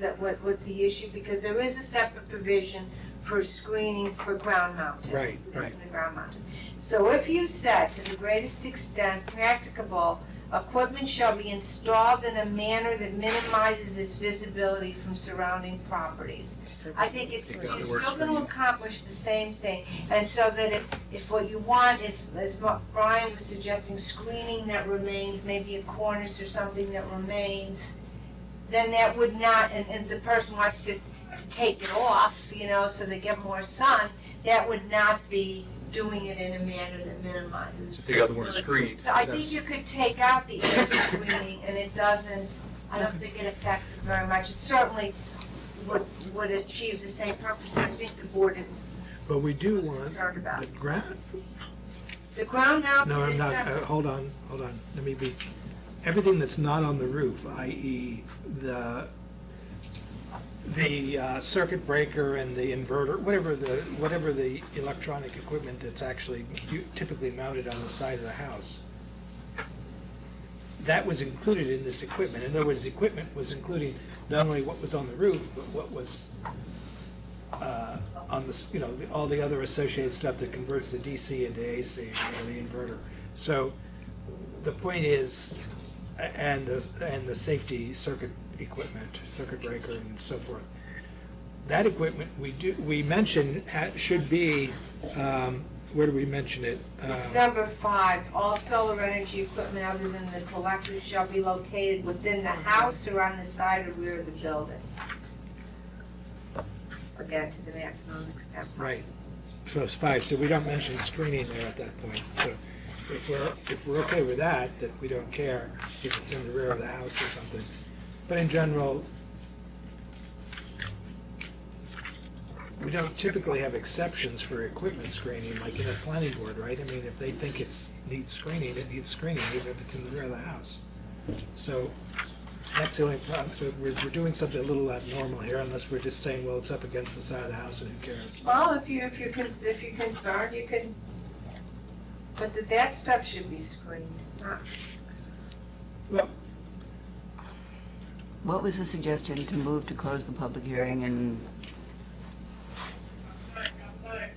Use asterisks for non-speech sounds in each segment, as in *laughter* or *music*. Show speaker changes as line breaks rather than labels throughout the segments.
that, what, what's the issue? Because there is a separate provision for screening for ground mounted.
Right,
This is
right.
the ground mounted. So if you said, to the greatest extent practicable, equipment shall be installed in a manner that minimizes its visibility from surrounding properties. I think it's,
Think that
you're
works
still
for
gonna
you.
accomplish the same thing, and so that if, if what you want is, as Ma- Brian was suggesting, screening that remains, maybe a cornice or something that remains, then that would not, and, and the person wants to, to take it off, you know, so they get more sun, that would not be doing it in a manner that minimizes.
To take out the word screen.
So I think you could take out the air screening, and it doesn't, I don't think it affects it very much. It certainly would, would achieve the same purpose I think the board
But we do
was
want
concerned about.
the ground,
The ground
no,
mounted
I'm
is
not, uh,
separate.
hold on, hold on, let me be, everything that's not on the roof, i.e. the, the uh, circuit breaker and the inverter, whatever the, whatever the electronic equipment that's actually u- typically mounted on the side of the house, that was included in this equipment. In other words, the equipment was including not only what was on the roof, but what was uh, on the, s- you know, the- all the other associated stuff that converts the DC into AC or the inverter. So the point is, a- and the, and the safety circuit equipment, circuit breaker and so forth. That equipment, we do, we mention, ha- should be, um, where do we mention it?
It's
Um,
number five, all solar energy equipment other than the collector shall be located within the house or on the side or rear of the building. Again, to the maximum extent.
Right, so it's five, so we don't mention screening there at that point. So if we're, if we're okay with that, that we don't care if it's in the rear of the house or something. But in general, we don't typically have exceptions for equipment screening, like in a planning board, right? I mean, if they think it's, needs screening, it needs screening, even if it's in the rear of the house. So that's the only problem, we're, we're doing something a little abnormal here, unless we're just saying, well, it's up against the side of the house and who cares?
Well, if you, if you're, con- if you're concerned, you can, but that, that stuff should be screened, not
What was the suggestion to move to close the public hearing and,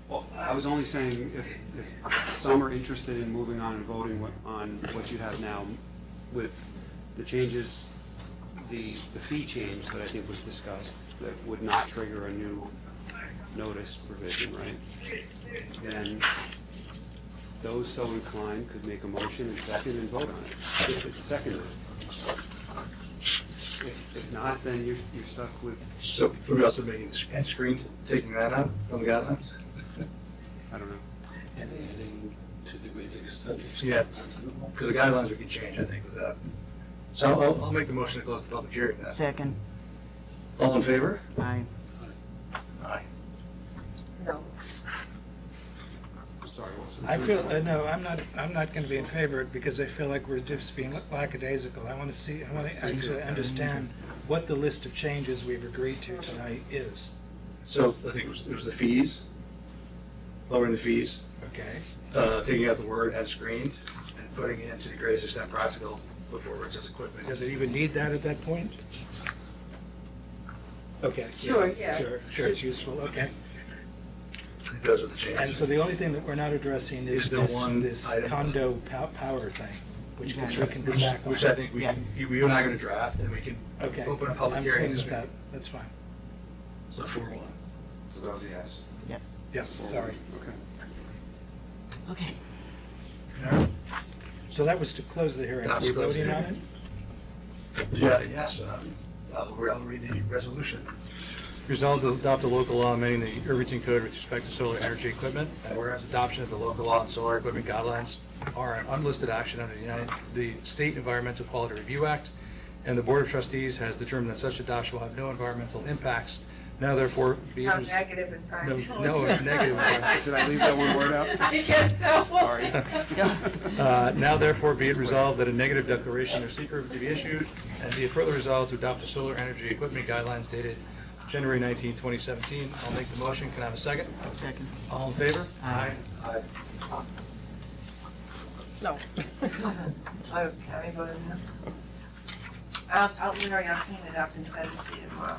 Well, I was only saying if, if some are interested in moving on and voting what- on what you have now with the changes, the, the fee change that I think was discussed, that would not trigger a new notice provision, right? Then those so inclined could make a motion and second and vote on it, if it's seconded. If, if not, then you're, you're stuck with,
So for us, making and screen, taking that out from the guidelines?
I don't know.
and adding to the great extent.
Yeah, because the guidelines we can change, I think, without. So I'll- I'll, I'll make the motion to close the public hearing then.
second,
All in favor?
I,
Aye.
No.
Sorry, what was the-
I feel, uh, no, I'm not, I'm not going to be in favor of it because I feel like we're just being lackadaisical. I want to see, I want to actually understand what the list of changes we've agreed to tonight is,
So I think it was, it was the fees, lowering the fees,
okay?
uh, taking out the word as screened, and putting it into the greatest extent practical before it says equipment.
Does it even need that at that point? Okay.
Sure, yeah.
Sure, sure, it's useful, okay.
Those are the
And
changes.
so the only thing that we're not addressing is
Is the
this,
one
this
item.
condo pow- power thing, which we
Which-
can come back on.
Which I think we, can-
Yes.
you you and I are going to draft, and we can
Okay.
open a public
I'm
hearing
fine
this
with
week.
that. That's fine.
So four one.
So that was a yes.
Yes, sorry.
Okay.
okay.
So that was to close the hearing. Are
That's
we
close the
voting on it?
hearing. Yeah, yes, um, I'll re- I'll read the resolution.
Resolved to adopt a local law amending the Irvington Code with respect to solar energy equipment, and whereas adoption of the local law and solar equipment guidelines are an unlisted action under the United, the State Environmental Quality Review Act, and the Board of Trustees has determined that such adoption will have no environmental impacts, now therefore be. it
How
res-
negative and practical.
no, it's negative
*laughs*
and practical.
Did I leave that one word out?
I guess so. *laughs*
Sorry. *laughs*
Uh, Now therefore be it resolved that a negative declaration or secret be issued, and be it further resolved to adopt the solar energy equipment guidelines dated January 19, 2017. I'll make the motion. Can I have a second?
Second.
All in favor?
Aye.
Aye.
Okay, I'm voting no. I'll, I'll, Mary, I'll clean it up and send it to you tomorrow.